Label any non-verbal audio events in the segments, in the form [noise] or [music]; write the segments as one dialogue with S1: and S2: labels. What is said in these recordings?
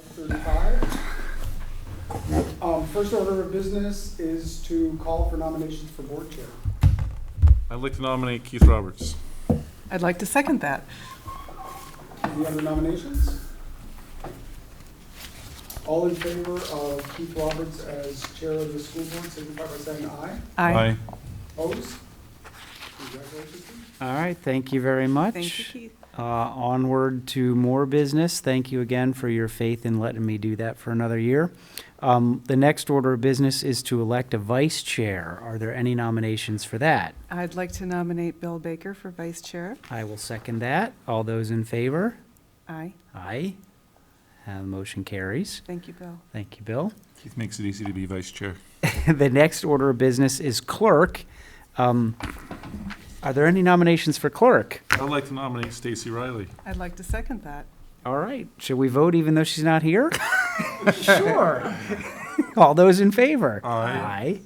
S1: thirty-five. Um, first order of business is to call for nominations for board chair.
S2: I'd like to nominate Keith Roberts.
S3: I'd like to second that.
S1: Any other nominations? All in favor of Keith Roberts as chair of the school board, signify by saying aye.
S3: I
S1: Opposed? Congratulations. Keith.
S4: All right, thank you very much.
S3: Thank you, Keith.
S4: Uh, Onward to more business. Thank you again for your faith in letting me do that for another year. Um, The next order of business is to elect a vice chair. Are there any nominations for that?
S3: I'd like to nominate Bill Baker for vice chair.
S4: I will second that. All those in favor?
S3: Aye.
S4: Aye. Uh, motion carries.
S3: Thank you, Bill.
S4: Thank you, Bill. [laughs]
S2: Keith makes it easy to be vice chair.
S4: The next order of business is clerk. Um, Are there any nominations for clerk?
S2: I'd like to nominate Stacy Riley.
S3: I'd like to second that.
S4: All right, should we vote even though she's not here? Sure. [laughs] All those in favor?
S2: Aye.
S4: Aye.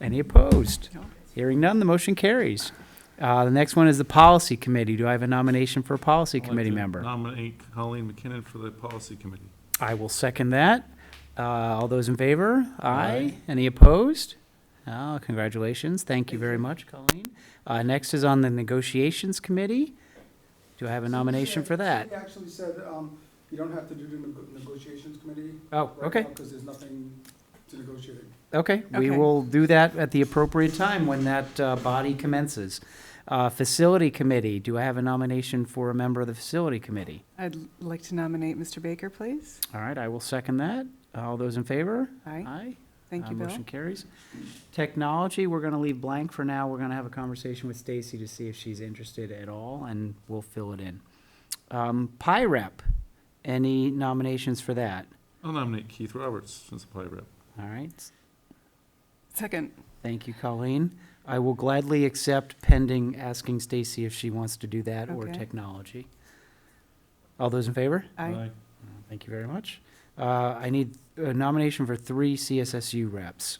S4: Any opposed?
S3: No.
S4: Hearing none, the motion carries. Uh, The next one is the policy committee. Do I have a nomination for a policy
S2: I'd like
S4: committee
S2: to
S4: member?
S2: Nominate Colleen McKinnon for the policy committee.
S4: I will second that. Uh, All those in favor?
S2: Aye.
S4: Aye. Any opposed? Oh, Congratulations, thank you very much, Colleen. Uh, Next is on the negotiations committee. Do I have a nomination for that?
S1: She actually said, um, you don't have to do the nego- negotiations committee.
S4: Oh, okay.
S1: Because there's nothing to negotiate.
S4: Okay, we
S3: Okay.
S4: will do that at the appropriate time when that uh, body commences. Uh, Facility Committee, do I have a nomination for a member of the Facility Committee?
S3: I'd like to nominate Mr. Baker, please.
S4: All right, I will second that. All those in favor?
S3: Aye. Thank
S4: Uh,
S3: you, Bill.
S4: Motion carries. Technology, we're going to leave blank for now. We're going to have a conversation with Stacy to see if she's interested at all, and we'll fill it in. Um, PIREP, any nominations for that?
S2: I'll nominate Keith Roberts since the play rep.
S4: All right,
S3: Second.
S4: Thank you, Colleen. I will gladly accept pending asking Stacy if she wants to do that or
S3: Okay.
S4: technology. All those in favor?
S3: Aye.
S4: Thank you very much. Uh, I need a nomination for three CSSU reps.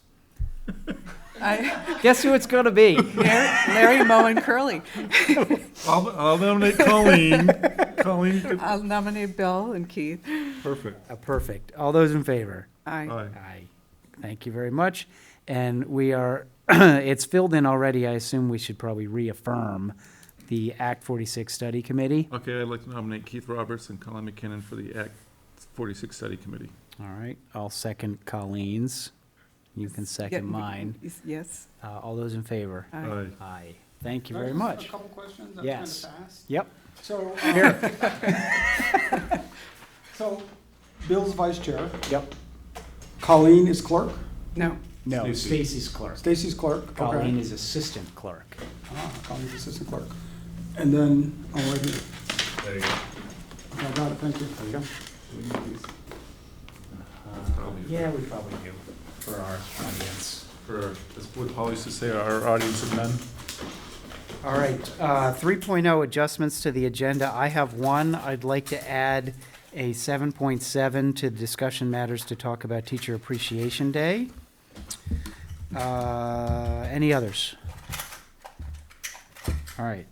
S3: Aye.
S4: Guess who it's gonna be?
S3: Larry [laughs] Larry, Moe, and Curly.
S2: I'll, I'll nominate Colleen. Colleen, could-
S3: I'll nominate Bill and Keith.
S2: perfect.
S4: Uh, Perfect. All those in favor?
S3: Aye.
S2: Aye.
S4: Aye. Thank you very much. And we are, [clears throat] it's filled in already. I assume we should probably reaffirm the Act 46 Study Committee.
S2: Okay, I'd like to nominate Keith Roberts and Colleen McKinnon for the Act 46 Study Committee.
S4: All right, I'll second Colleen's. You can
S3: Yeah,
S4: second
S3: you-
S4: mine.
S3: yes- Yes.
S4: Uh, All those in favor?
S3: Aye.
S4: Aye. Thank you
S1: Can I
S4: very
S1: just ask
S4: much.
S1: A couple questions? That's
S4: Yes.
S1: kinda fast.
S4: Yep,
S1: So, um, [laughs] so Bill's vice chair,
S4: yep.
S1: Colleen is clerk,
S3: No.
S4: No,
S2: Stacy.
S4: Stacy's clerk.
S1: Stacy's clerk.
S4: Colleen
S1: Okay.
S4: is assistant clerk.
S1: Ah, Colleen's assistant clerk. And then, oh, wait a minute.
S2: There you go.
S1: Okay, I got it, thank you.
S4: Uh, Yeah, we probably do for our audience.
S2: For, as would Paul used to say, our audience of men.
S4: All right, uh, 3.0 adjustments to the agenda. I have one. I'd like to add a 7.7 to the discussion matters to talk about Teacher Appreciation Day. Uh, Any others? All right.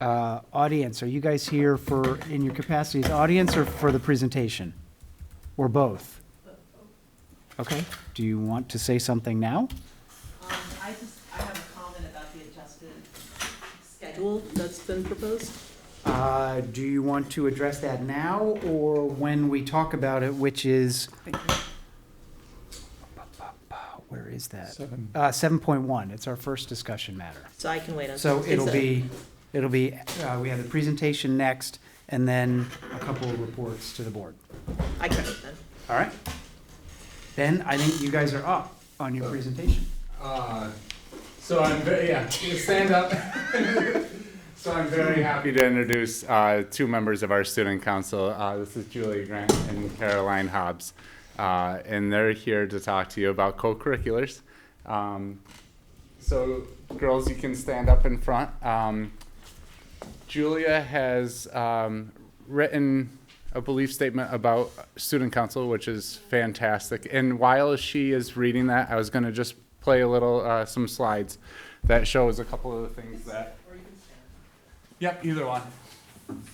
S4: Uh, Audience, are you guys here for, in your capacity as audience or for the presentation? Or both? Okay, do you want to say something now?
S5: Um, I just, I have a comment about the adjusted schedule that's been proposed.
S4: Uh, Do you want to address that now or when we talk about it, which is,
S3: Thank you.
S4: where is that? Uh, 7.1, it's our first discussion matter.
S5: So I can wait on.
S4: So it'll be, it'll be, uh, we have the presentation next and then a couple of reports to the board.
S5: I can wait then.
S4: All right? Then I think you guys are up on your presentation.
S6: Uh, so I'm very yeah. Stand up. [laughs] so I'm very happy to introduce uh, two members of our student council. Uh, this is Julie Grant and Caroline Hobbs, uh, and they're here to talk to you about co-curriculars. Um, so girls, you can stand up in front. Um, Julia has um, written a belief statement about student council, which is fantastic. And while she is reading that, I was going to just play a little uh, some slides that shows a couple of the things that. Yep, either one.